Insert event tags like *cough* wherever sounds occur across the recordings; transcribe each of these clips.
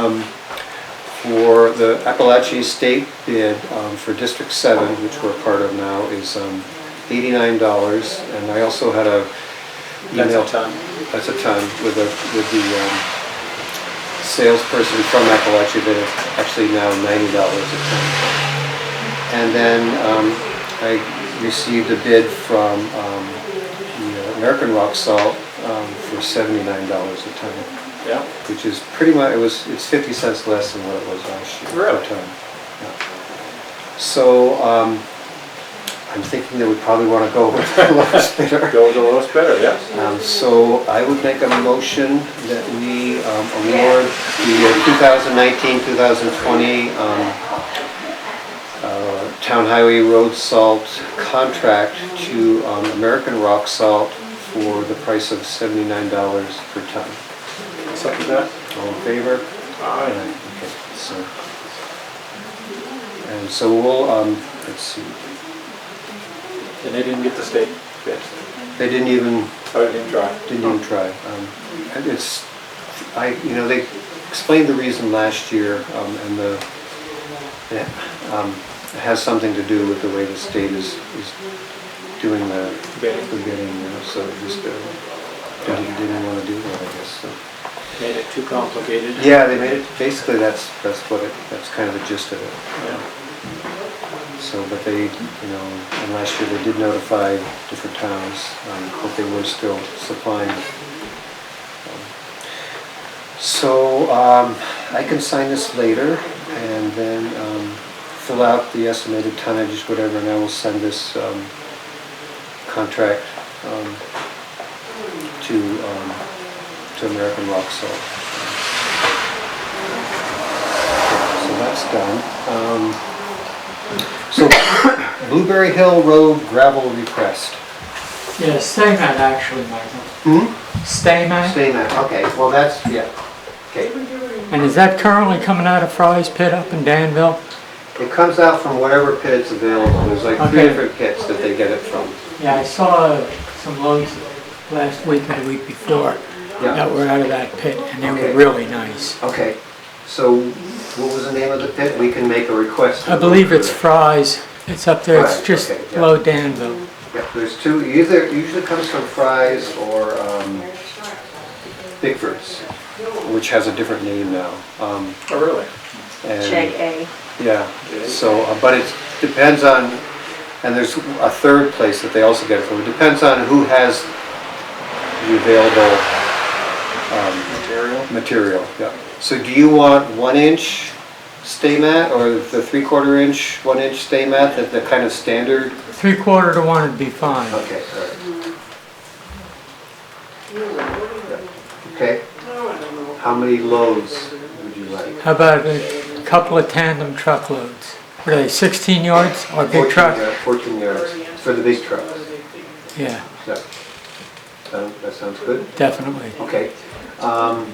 um, for the Appalachian State bid um, for District 7, which we're part of now, is um, $89. And I also had a That's email. a ton. That's a ton with the, with the um, salesperson from Appalachia that is actually now $90 a ton. And then um, I received a bid from um, the American Rock Salt um, for $79 a ton Yeah. which is pretty much, it was, it's 50 cents less than what it was last year. per Really? ton. Yeah. So, um, I'm thinking that we probably want to go *laughs* with the lowest bidder. Go with the lowest bidder, yes. Um, So I would make a motion that we um, award uh, the 2019-2020 um, uh, Town Highway Road Salt contract to um, American Rock Salt for the price of $79 per ton. Second that? All in favor? Aye. Okay, so, and so we'll, um, let's see, And they didn't get the state bid. they didn't even, Oh, they didn't try. didn't even try. Um, and It's, I, you know, they explained the reason last year, um, and the, yeah, um, it has something to do with the way the state is, is doing the, Bidding. the bidding, you know, so just, uh, didn't, didn't wanna do that, I guess, so. Made it too complicated. Yeah, they made it, basically, that's, that's what it, that's kind of the gist of it. Yeah. So, but they, you know, and last year they did notify different towns, um, but they were still supplying. So, um, I can sign this later and then, um, fill out the estimated tonnage, whatever, and I will send this, um, contract, um, to, um, to American Rock Salt. So that's done. Um, so *coughs* Blueberry Hill Road gravel request. Yeah, Stamen actually, Michael. Hmm? Stamen, Stay there, okay, well, that's, yeah, okay. and is that currently coming out of Fry's Pit up in Danville? It comes out from whatever pit it's available, there's like three Okay. different pits that they get it from. Yeah, I saw some loads last week and the week before Yeah, that were out of that pit, and they Okay. were really nice. okay, so what was the name of the pit? We can make a request. I believe it's Fry's, it's up there, it's Fry's, just okay, yeah. below Danville. Yeah, there's two, either, usually comes from Fry's or, um, Bigford's, which has a different name now. Um, Oh, really? and- Check A. Yeah, so, uh, but it depends on, and there's a third place that they also get it from. It depends on who has the available um, Material? material, yeah. So do you want one inch stay mat or the three quarter inch, one inch stay mat, that the kind of standard? Three quarter to one would be fine. Okay, all right. Yeah, Okay. How many loads would you like? How about a couple of tandem truckloads? What are they, 16 yards or big 14 truck? yard- Fourteen yards, for the big trucks. Yeah, Yeah. Sound- That sounds good. definitely. Okay. Um,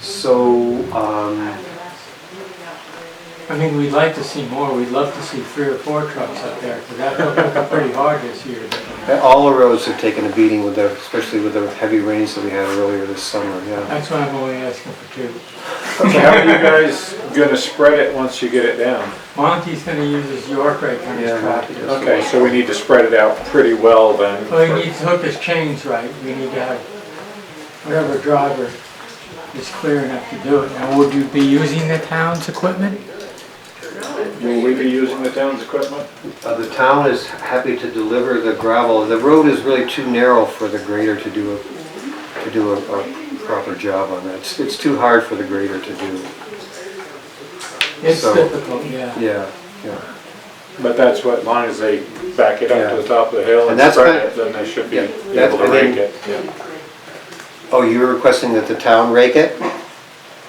So, um, I mean, we'd like to see more, we'd love to see three or four trucks up there, because that looked like pretty hard this year. eh, all the roads have taken a beating with the, especially with the heavy rains that we had earlier this summer, yeah. That's why I'm only asking for two. So How are you guys gonna spread it once you get it down? Monty's gonna use his York rake on his Yeah, truck. Monty does. Okay, Oh, so we need to spread it out pretty well then. Well, he needs to hook his chains right, we need to have whatever driver is clear enough to do it. Now, would you be using the town's equipment? Will we be using the town's equipment? Uh, The town is happy to deliver the gravel. The road is really too narrow for the grader to do, a- to do a a proper job on that. It's- It's too hard for the grader to do. It's So- difficult, yeah. Yeah, yeah. But that's what, as long as they back it up to the top of the hill And and that's spread kind- it, then they should be Yeah, that's- able to and then- rake it. Yeah. Oh, you were requesting that the town rake it?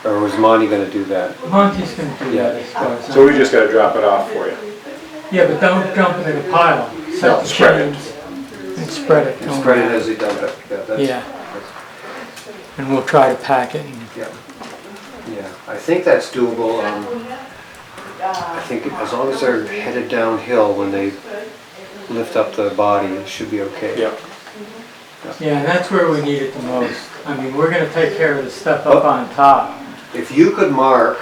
Or was Monty gonna do that? Monty's gonna do that as far as. So we just gotta drop it off for you. Yeah, but don't dump it in a pile. Set the spread it. chains And spread it. don't Spread it worry. as he does it. Yeah, that's- Yeah. that's- And we'll try to pack it and Yeah, yeah, I think that's doable. um, I think as long as they're headed downhill when they lift up the body, it should be okay. Yeah. Yeah, and that's where we need it the most. I mean, we're gonna take care of the stuff up on top, If you could mark